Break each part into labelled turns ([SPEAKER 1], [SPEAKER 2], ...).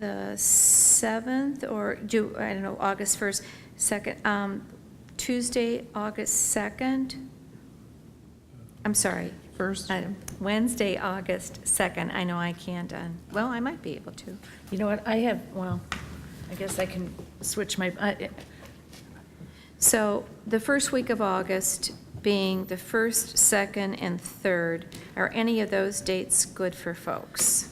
[SPEAKER 1] the 7th, or do, I don't know, August 1st, 2nd, um, Tuesday, August 2nd? I'm sorry.
[SPEAKER 2] First?
[SPEAKER 1] Uh, Wednesday, August 2nd. I know I can't, on- well, I might be able to.
[SPEAKER 2] You know what, I have, well, I guess I can switch my, I-
[SPEAKER 1] So the first week of August being the 1st, 2nd, and 3rd, are any of those dates good for folks?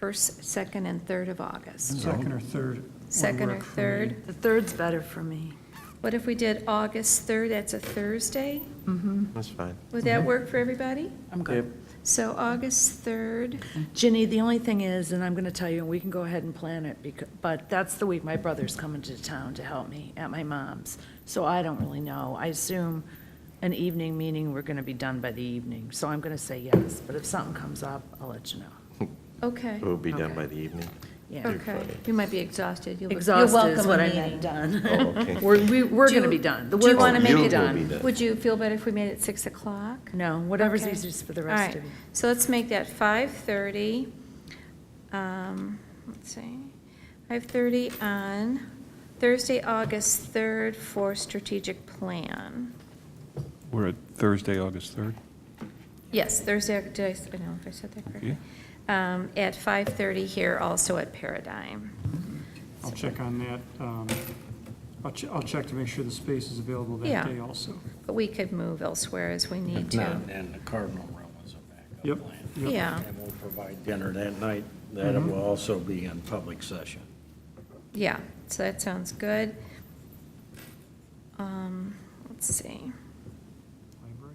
[SPEAKER 1] 1st, 2nd, and 3rd of August.
[SPEAKER 3] Second or third. would
[SPEAKER 1] Second or
[SPEAKER 3] work for me.
[SPEAKER 1] third?
[SPEAKER 2] the third's better for me.
[SPEAKER 1] What if we did August 3rd, that's a Thursday?
[SPEAKER 2] Mm-hmm.
[SPEAKER 4] That's fine.
[SPEAKER 1] Would that work for everybody?
[SPEAKER 2] I'm good.
[SPEAKER 1] So August 3rd,
[SPEAKER 2] Ginny, the only thing is, and I'm going to tell you, and we can go ahead and plan it, becau- but that's the week my brother's coming to town to help me at my mom's. So I don't really know. I assume an evening meeting, we're going to be done by the evening. So I'm going to say yes, but if something comes up, I'll let you know.
[SPEAKER 1] okay,
[SPEAKER 4] It will be done
[SPEAKER 2] Okay.
[SPEAKER 4] by the evening.
[SPEAKER 2] Yeah.
[SPEAKER 1] okay. You might be exhausted. You'll look- you're
[SPEAKER 2] Exhausted is
[SPEAKER 1] welcome
[SPEAKER 2] what I
[SPEAKER 1] meeting.
[SPEAKER 2] meant, done.
[SPEAKER 4] Oh, okay.
[SPEAKER 2] We're, we- we're
[SPEAKER 1] Do
[SPEAKER 2] going to
[SPEAKER 1] you-
[SPEAKER 2] be done. The
[SPEAKER 1] do you
[SPEAKER 2] work
[SPEAKER 1] wanna
[SPEAKER 2] will
[SPEAKER 1] make
[SPEAKER 2] be
[SPEAKER 1] it-
[SPEAKER 2] done.
[SPEAKER 4] done.
[SPEAKER 1] Would you feel better if we made it 6 o'clock?
[SPEAKER 2] No, whatever's
[SPEAKER 1] Okay.
[SPEAKER 2] easiest for the
[SPEAKER 1] All
[SPEAKER 2] rest
[SPEAKER 1] right.
[SPEAKER 2] of you.
[SPEAKER 1] So let's make that 5:30, um, let's see, 5:30 on Thursday, August 3rd for strategic plan.
[SPEAKER 5] We're at Thursday, August 3rd?
[SPEAKER 1] Yes, Thursday, did I, s- I don't know if I said that correctly. Um, At 5:30 here, also at Paradigm.
[SPEAKER 3] I'll check on that. um, I'll, che- I'll check to make sure the space is available
[SPEAKER 1] Yeah.
[SPEAKER 3] that day also.
[SPEAKER 1] But we could move elsewhere as we need
[SPEAKER 6] If
[SPEAKER 1] to.
[SPEAKER 6] not, then the Cardinal Room is a backup
[SPEAKER 3] Yep,
[SPEAKER 6] plan.
[SPEAKER 3] yep.
[SPEAKER 1] Yeah,
[SPEAKER 6] And we'll provide dinner that night. That will also be in public session.
[SPEAKER 1] yeah, so that sounds good. Um, Let's see.
[SPEAKER 3] Library?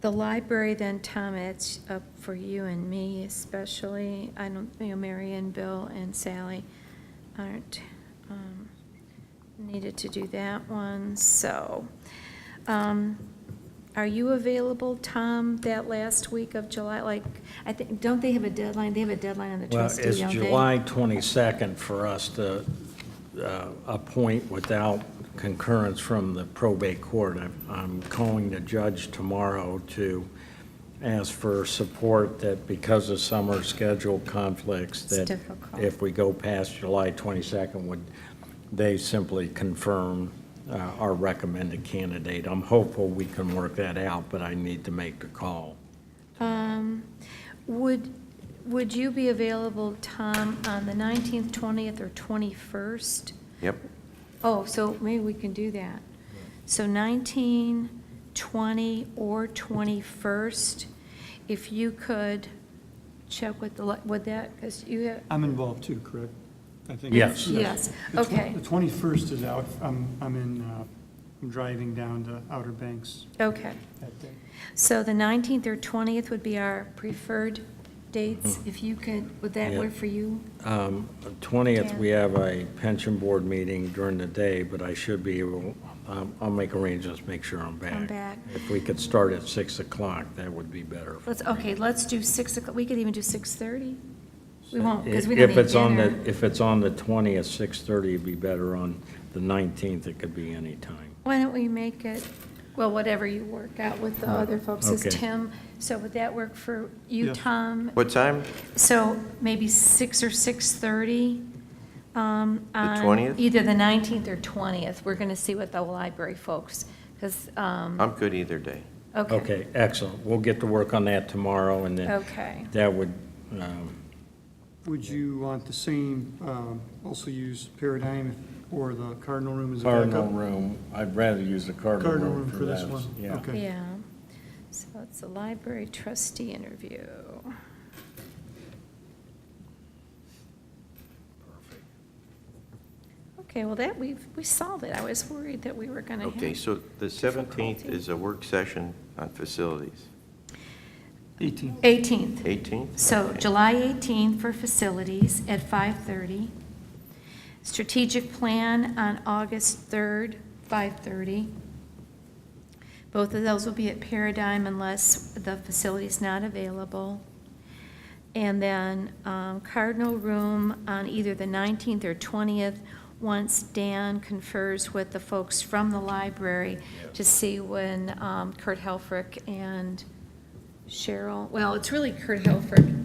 [SPEAKER 1] The library, then, Tom, it's up for you and me especially. I don't, you know, Mary and Bill and Sally aren't um, needed to do that one, so. um, Are you available, Tom, that last week of July? Like, I think, don't they have a deadline? They have a deadline on the
[SPEAKER 6] Well,
[SPEAKER 1] trustee,
[SPEAKER 6] it's
[SPEAKER 1] don't they?
[SPEAKER 6] July 22nd for us to uh, appoint without concurrence from the probate court. I'm- I'm calling the judge tomorrow to ask for support that because of summer schedule conflicts,
[SPEAKER 1] It's
[SPEAKER 6] that
[SPEAKER 1] difficult.
[SPEAKER 6] if we go past July 22nd, would they simply confirm uh, our recommended candidate? I'm hopeful we can work that out, but I need to make the call.
[SPEAKER 1] Um, Would, would you be available, Tom, on the 19th, 20th, or 21st?
[SPEAKER 4] Yep,
[SPEAKER 1] Oh, so maybe we can do that. So 19, 20, or 21st, if you could check with the, li- would that, because you have,
[SPEAKER 3] I'm involved too, correct? I think-
[SPEAKER 6] Yes.
[SPEAKER 1] Yes,
[SPEAKER 3] The twen-
[SPEAKER 1] okay.
[SPEAKER 3] The 21st is out. I'm, I'm in, uh, I'm driving down to Outer Banks
[SPEAKER 1] okay.
[SPEAKER 3] that day.
[SPEAKER 1] So the 19th or 20th would be our preferred dates, if you could, would that
[SPEAKER 6] Hmm. Yeah.
[SPEAKER 1] work for you?
[SPEAKER 6] Um, 20th,
[SPEAKER 1] Dan?
[SPEAKER 6] we have a pension board meeting during the day, but I should be able, um, I'll make arrangements, make sure I'm back.
[SPEAKER 1] back.
[SPEAKER 6] If we could start at 6 o'clock, that would be better.
[SPEAKER 1] Let's, okay, let's do 6, o'clock. we could even do 6:30. We won't, because we don't
[SPEAKER 6] If
[SPEAKER 1] need
[SPEAKER 6] it's on
[SPEAKER 1] dinner.
[SPEAKER 6] the, if it's on the 20th, 6:30 would be better. On the 19th, it could be any time.
[SPEAKER 1] Why don't we make it, well, whatever you work out with the other folks is
[SPEAKER 6] Okay.
[SPEAKER 1] Tim. So would that work for you,
[SPEAKER 3] Yeah.
[SPEAKER 1] Tom?
[SPEAKER 4] what time?
[SPEAKER 1] So maybe six or 6:30? The
[SPEAKER 4] The 20th?
[SPEAKER 1] Either the 19th or 20th. We're going to see what the library folks, because,
[SPEAKER 4] I'm good either day.
[SPEAKER 1] okay.
[SPEAKER 6] Okay, excellent. We'll get to work on that tomorrow, and then
[SPEAKER 1] Okay.
[SPEAKER 6] that would, um,
[SPEAKER 3] Would you want the same, um, also use Paradigm or the Cardinal Room as a backup?
[SPEAKER 6] Cardinal Room, I'd rather use the Cardinal Room
[SPEAKER 3] Cardinal Room for this
[SPEAKER 6] those.
[SPEAKER 3] one?
[SPEAKER 6] Yeah.
[SPEAKER 3] Okay.
[SPEAKER 1] Yeah. So it's a library trustee interview. Okay, well, that, we we solved it. I was worried that we were going to have.
[SPEAKER 4] Okay, so the 17th
[SPEAKER 1] Difficulty.
[SPEAKER 4] is a work session on facilities.
[SPEAKER 3] 18.
[SPEAKER 1] 18th.
[SPEAKER 4] 18th?
[SPEAKER 1] So
[SPEAKER 4] Okay.
[SPEAKER 1] July 18th for facilities at 5:30. Strategic plan on August 3rd, 5:30. Both of those will be at Paradigm unless the facility's not available. And then um, Cardinal Room on either the 19th or 20th, once Dan confers with the folks from the library to see when um, Kurt Helfrich and Cheryl, well, it's really Kurt Helfrich